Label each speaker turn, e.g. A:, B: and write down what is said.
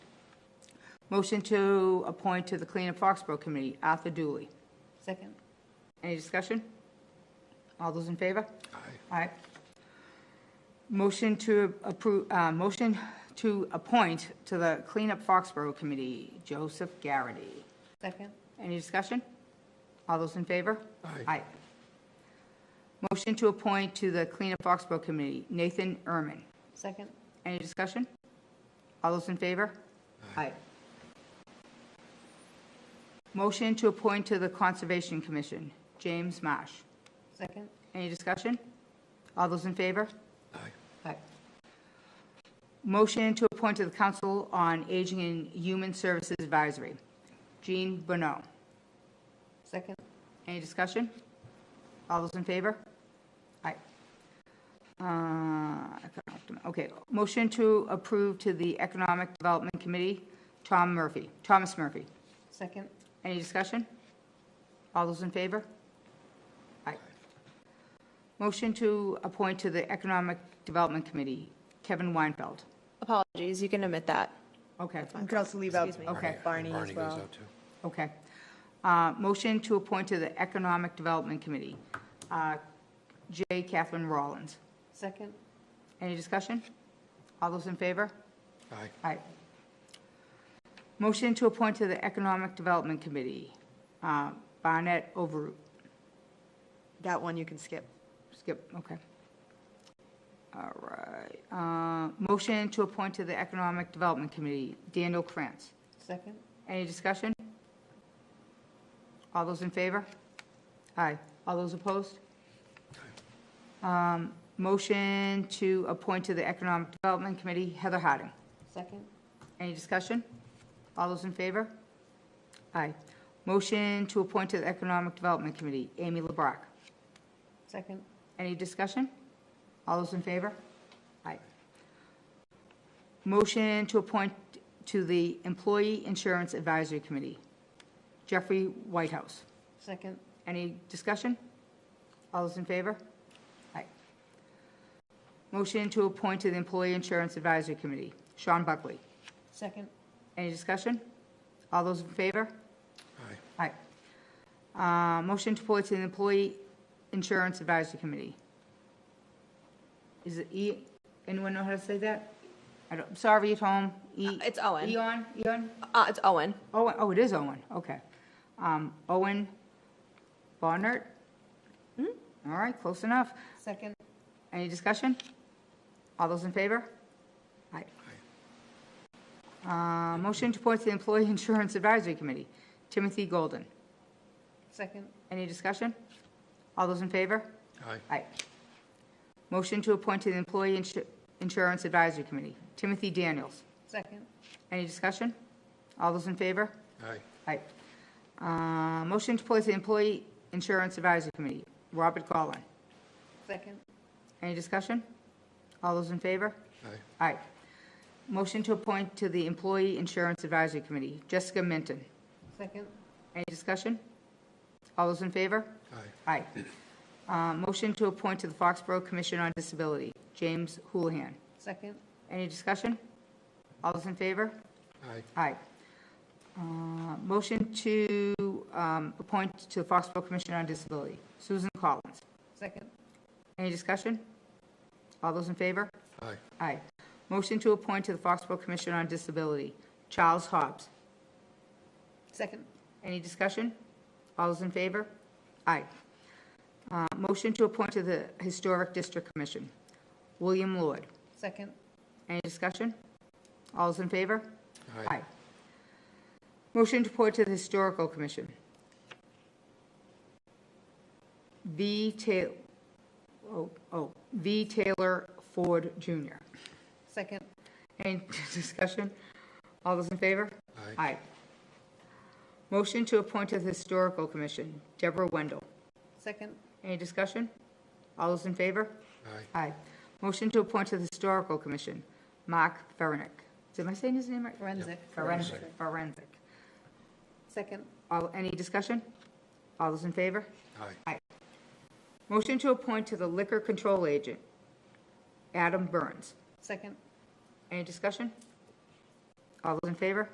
A: Motion to appoint to the Clean Up Foxborough Committee, Arthur Dooley.
B: Second.
A: Any discussion? All those in favor?
C: Aye.
A: Aye. Motion to approve, uh, motion to appoint to the Clean Up Foxborough Committee, Joseph Garrity.
B: Second.
A: Any discussion? All those in favor?
C: Aye.
A: Motion to appoint to the Clean Up Foxborough Committee, Nathan Erman.
B: Second.
A: Any discussion? All those in favor? Aye. Motion to appoint to the Conservation Commission, James Marsh.
B: Second.
A: Any discussion? All those in favor?
C: Aye.
A: Aye. Motion to appoint to the Council on Aging and Human Services Advisory, Jean Bonneau.
B: Second.
A: Any discussion? All those in favor? Aye. Uh, economic- Okay, motion to approve to the Economic Development Committee, Tom Murphy, Thomas Murphy.
B: Second.
A: Any discussion? All those in favor? Aye. Motion to appoint to the Economic Development Committee, Kevin Weinfeld.
D: Apologies, you can omit that.
A: Okay,
E: You could also leave out
A: Okay.
E: Barney as
C: Barney goes
E: well.
C: out too.
A: okay. Uh, Motion to appoint to the Economic Development Committee, uh, J. Catherine Rollins.
B: Second.
A: Any discussion? All those in favor?
C: Aye.
A: Aye. Motion to appoint to the Economic Development Committee, uh, Barnett Overroot.
E: That one you can skip.
A: Skip, okay. All right. Uh, Motion to appoint to the Economic Development Committee, Daniel Krantz.
B: Second.
A: Any discussion? All those in favor? Aye. All those opposed? Um, Motion to appoint to the Economic Development Committee, Heather Harding.
B: Second.
A: Any discussion? All those in favor? Aye. Motion to appoint to the Economic Development Committee, Amy LeBrock.
B: Second.
A: Any discussion? All those in favor? Aye. Motion to appoint to the Employee Insurance Advisory Committee, Jeffrey Whitehouse.
B: Second.
A: Any discussion? All those in favor? Aye. Motion to appoint to the Employee Insurance Advisory Committee, Sean Buckley.
B: Second.
A: Any discussion? All those in favor?
C: Aye.
A: Aye. Uh, Motion to appoint to the Employee Insurance Advisory Committee. Is it E, anyone know how to say that? I don't, sorry at home. E-
D: Uh, it's Owen.
A: Eon, Eon?
D: Uh, it's Owen.
A: Owen, oh, it is Owen, okay. Um, Owen Barnard?
D: Hmm?
A: All right, close enough.
B: Second.
A: Any discussion? All those in favor? Aye. Uh, Motion to appoint to the Employee Insurance Advisory Committee, Timothy Golden.
B: Second.
A: Any discussion? All those in favor?
C: Aye.
A: Aye. Motion to appoint to the Employee Insu- Insurance Advisory Committee, Timothy Daniels.
B: Second.
A: Any discussion? All those in favor?
C: Aye.
A: Aye. Uh, Motion to appoint to the Employee Insurance Advisory Committee, Robert Gollin.
B: Second.
A: Any discussion? All those in favor?
C: Aye.
A: Aye. Motion to appoint to the Employee Insurance Advisory Committee, Jessica Minton.
B: Second.
A: Any discussion? All those in favor?
C: Aye.
A: Aye. Uh, Motion to appoint to the Foxborough Commission on Disability, James Houlihan.
B: Second.
A: Any discussion? All those in favor?
C: Aye.
A: Aye. Uh, Motion to um, appoint to the Foxborough Commission on Disability, Susan Collins.
B: Second.
A: Any discussion? All those in favor?
C: Aye.
A: Aye. Motion to appoint to the Foxborough Commission on Disability, Charles Hobbs.
B: Second.
A: Any discussion? All those in favor? Aye. Uh, Motion to appoint to the Historic District Commission, William Lord.
B: Second.
A: Any discussion? All those in favor?
C: Aye.
A: Motion to appoint to the Historical Commission. V. Taylor, oh, oh, V. Taylor Ford Jr.
B: Second.
A: Any discussion? All those in favor?
C: Aye.
A: Aye. Motion to appoint to the Historical Commission, Deborah Wendell.
B: Second.
A: Any discussion? All those in favor?
C: Aye.
A: Aye. Motion to appoint to the Historical Commission, Mark Ferenek. Am I saying his name right?
B: Forensic.
A: Forensic. Forensic.
B: Second.
A: All, any discussion? All those in favor?
C: Aye.
A: Motion to appoint to the Liquor Control Agent, Adam Burns.
B: Second.
A: Any discussion? All those in favor?